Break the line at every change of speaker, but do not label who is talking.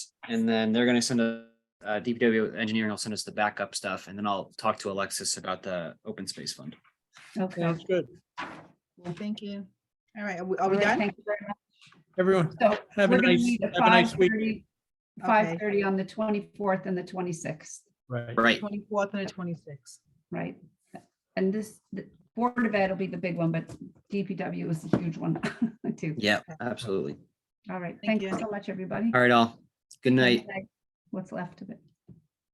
and then they're gonna send a, uh, DPW engineering will send us the backup stuff, and then I'll talk to Alexis about the open space fund.
Okay,
Sounds good.
well, thank you.
All right, are we- are
All
we
right,
done?
Thank you very much.
Everyone,
So
have a
we're gonna
nice,
meet at
have a nice week.
5:30
Okay.
5:30 on the 24th and the 26th,
Right.
Right,
Twenty-fourth and the twenty-sixth.
right? And this, the Board of Ed will be the big one, but DPW is the huge one too.
yeah, absolutely.
All right, thank
Thank you.
you so much, everybody.
All right, all. Good night.
What's left of it.